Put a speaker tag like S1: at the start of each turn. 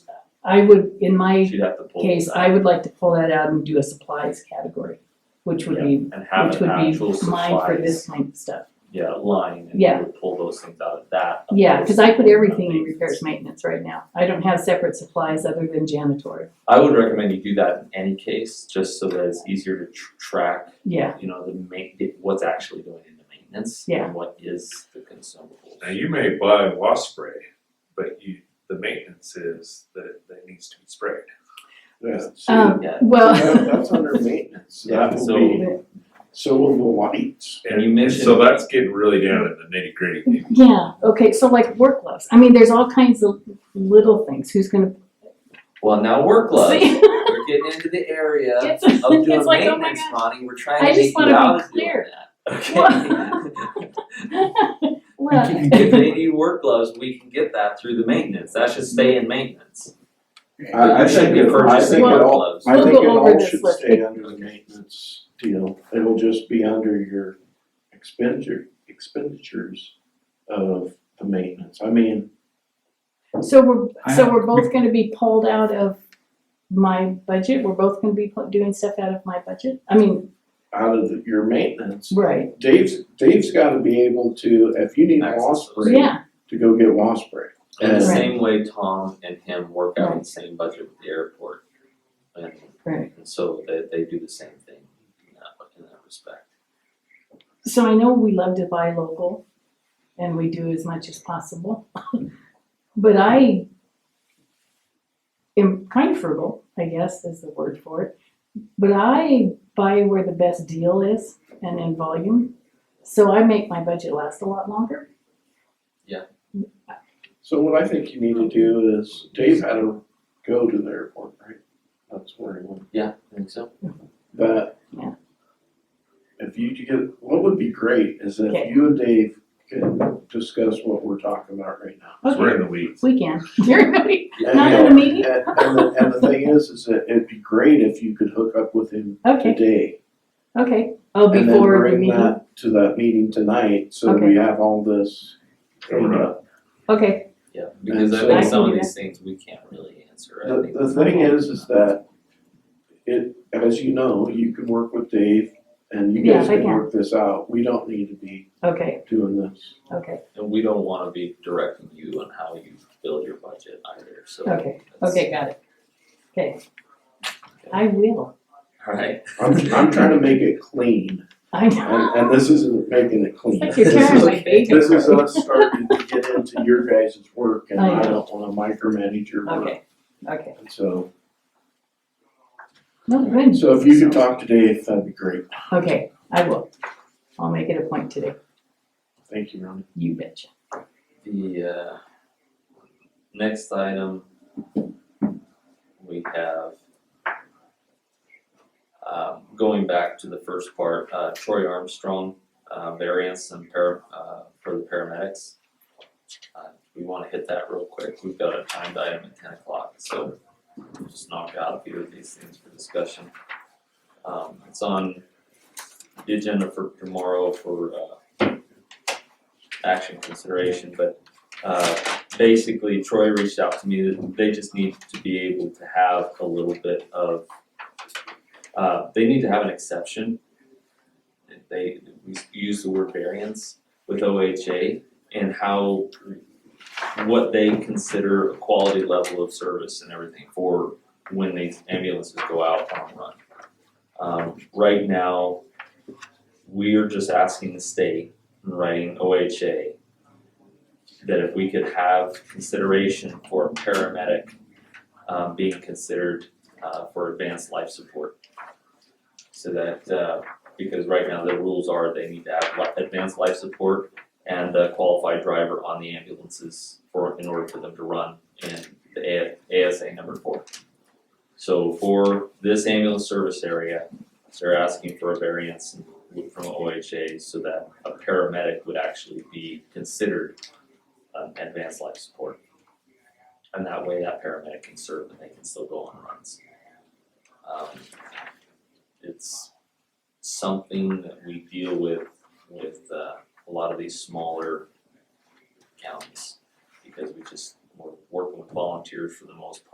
S1: I would, in my
S2: She'd have to pull.
S1: case, I would like to pull that out and do a supplies category, which would be,
S2: And have
S1: which
S2: an
S1: would
S2: actual
S1: be mine for this
S2: supplies,
S1: kind of stuff.
S2: yeah, line, and
S1: Yeah.
S2: you would pull those things out of that.
S1: Yeah, cause I put
S2: opposed to
S1: everything in
S2: maintenance.
S1: repairs maintenance right now. I don't have separate supplies other than janitorial.
S2: I would recommend you do that in any case, just so that it's easier to tr- track,
S1: Yeah,
S2: you know, the ma- what's actually going into maintenance
S1: Yeah.
S2: and what is the consumables.
S3: Now, you may buy wasp spray, but you, the maintenance is that it, that it needs to be sprayed.
S4: Yeah,
S1: Um,
S4: so
S2: Yeah,
S1: well,
S4: that- that's under maintenance,
S2: Yeah,
S4: that
S2: so-
S4: will be, so will the lights.
S2: And you
S3: So
S2: mentioned-
S3: that's getting really down in the nitty gritty.
S1: yeah, okay, so like work gloves. I mean, there's all kinds of little things. Who's gonna?
S2: well, now work gloves,
S1: See?
S2: we're getting into the area
S1: It's,
S2: of doing
S1: it's like, oh my
S2: maintenance
S1: god.
S2: money, we're trying
S1: I
S2: to
S1: just
S2: make
S1: wanna be
S2: you out of doing
S1: clear.
S2: that, okay?
S1: Look.
S2: If you- If they need work gloves, we can get that through the maintenance, that should stay in maintenance.
S4: I, I think
S2: You should be
S4: it, I think
S2: purchasing
S4: it
S1: Well-
S4: all,
S2: gloves.
S4: I think
S1: We'll
S4: it
S1: go over
S4: all
S1: this
S4: should
S1: list.
S4: stay under the maintenance deal, it'll just be under your expenditure, expenditures of the maintenance, I mean,
S1: So we're,
S5: I
S1: so
S5: have-
S1: we're both gonna be pulled out of my budget, we're both gonna be pu- doing stuff out of my budget, I mean,
S4: out of the- your maintenance.
S1: right,
S4: Dave's, Dave's gotta be able to, if you need
S2: Access
S4: wasp
S2: those.
S4: spray,
S1: yeah,
S4: to go get wasp spray.
S2: In the
S4: Right.
S2: same way Tom and him work out the
S1: Right.
S2: same budget with the airport. And
S1: Right.
S2: and so they they do the same thing in that in that respect.
S1: so I know we love to buy local, and we do as much as possible. But I am kind of frugal, I guess is the word for it, but I buy where the best deal is and in volume, so I make my budget last a lot longer.
S4: So what I think you need to do is, Dave had to go to the airport, right? That's where he went,
S2: Yeah, I think so.
S4: but.
S1: Yeah.
S4: If you could get, what would be great is if
S1: Okay.
S4: you and Dave could discuss what we're talking about right now.
S3: Cause we're in the weeds.
S1: We can, you're gonna be,
S4: And,
S1: Not
S4: you
S1: in
S4: know,
S1: a meeting?
S4: And, and the, and the thing is, is that it'd be great if you could hook up with him
S1: okay,
S4: today.
S1: okay, oh,
S4: And then
S1: before the
S4: bring
S1: meeting.
S4: that to that meeting tonight, so
S1: Okay.
S4: we have all this cleaned
S3: Right.
S4: up.
S1: Okay,
S2: Yeah, because I
S4: so-
S2: think
S1: I
S2: some
S1: can
S2: of
S1: do
S2: these things we can't really answer, I
S4: The,
S2: think.
S4: the thing is, is that it, as you know, you can work with Dave and you
S1: Yeah,
S4: guys
S1: I
S4: can
S1: can.
S4: work this out. We don't need to be
S1: okay,
S4: doing this.
S1: okay,
S2: And we don't wanna be directing you on how you build your budget either, so.
S1: okay,
S2: that's-
S1: okay, got it. Okay. I will,
S2: Alright,
S4: I'm, I'm trying to make it clean
S1: I
S4: and,
S1: know.
S4: and this isn't making it clean.
S1: It's like you're
S4: This
S1: carrying
S4: is-
S1: my baby.
S4: This is us starting to get into your guys' work and
S1: I
S4: I
S1: know.
S4: don't wanna micromanage your work.
S1: Okay, okay.
S4: And so,
S1: No, good,
S4: so if you could talk to Dave, that'd be great.
S1: okay, I will. I'll make it a point today,
S4: Thank you, Ronnie.
S1: you betcha.
S2: the uh next item we have um going back to the first part, uh Troy Armstrong, uh variance and para, uh for the paramedics. Uh we wanna hit that real quick, we've got a timed item at ten o'clock, so we'll just knock out a few of these things for discussion. Um it's on the agenda for tomorrow for uh action consideration, but uh basically Troy reached out to me that they just need to be able to have a little bit of uh they need to have an exception. They we use the word variance with OHA and how what they consider a quality level of service and everything for when these ambulances go out on run. Um right now, we're just asking the state and writing OHA, that if we could have consideration for a paramedic um, being considered uh, for advanced life support. So that, uh, because right now the rules are they need to have li- advanced life support and a qualified driver on the ambulances for, in order for them to run in the A- ASA number four. So for this ambulance service area, they're asking for a variance from OHA so that a paramedic would actually be considered um, advanced life support. And that way that paramedic can serve and they can still go on runs. Um, it's something that we deal with, with uh, a lot of these smaller counties. Because we just, we're working with volunteers for the most part.